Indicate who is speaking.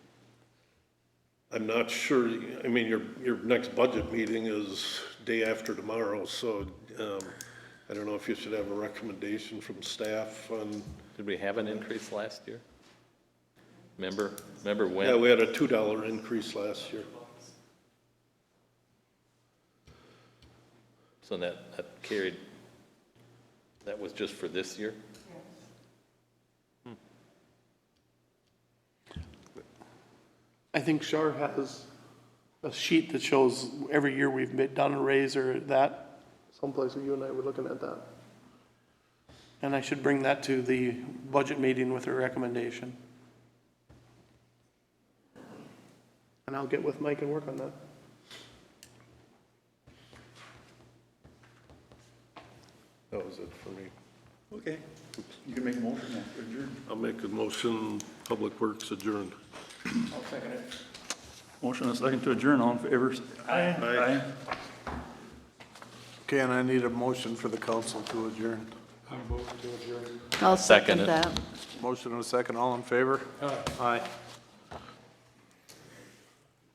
Speaker 1: I'm not sure, I mean, your, your next budget meeting is day after tomorrow, so, um, I don't know if you should have a recommendation from staff on,
Speaker 2: Did we have an increase last year? Remember, remember
Speaker 1: yeah,
Speaker 2: when?
Speaker 1: we had a two dollar increase last year.
Speaker 2: So that, that carried, that was just for this year?
Speaker 3: I think Shar has a sheet that shows every year we've made- done a raise or that, someplace that you and I were looking at that. And I should bring that to the budget meeting with a recommendation. And I'll get with Mike and work on that.
Speaker 1: That was it for me.
Speaker 4: Okay. You can make a motion now, adjourn.
Speaker 1: I'll make a motion, Public Works adjourned.
Speaker 4: I'll second it. Motion and a second to adjourn, all in favor? Aye. Aye.
Speaker 5: Okay, and I need a motion for the council to adjourn.
Speaker 6: I'll
Speaker 2: Second
Speaker 6: second
Speaker 2: it.
Speaker 6: that.
Speaker 5: Motion and a second, all in favor? Aye.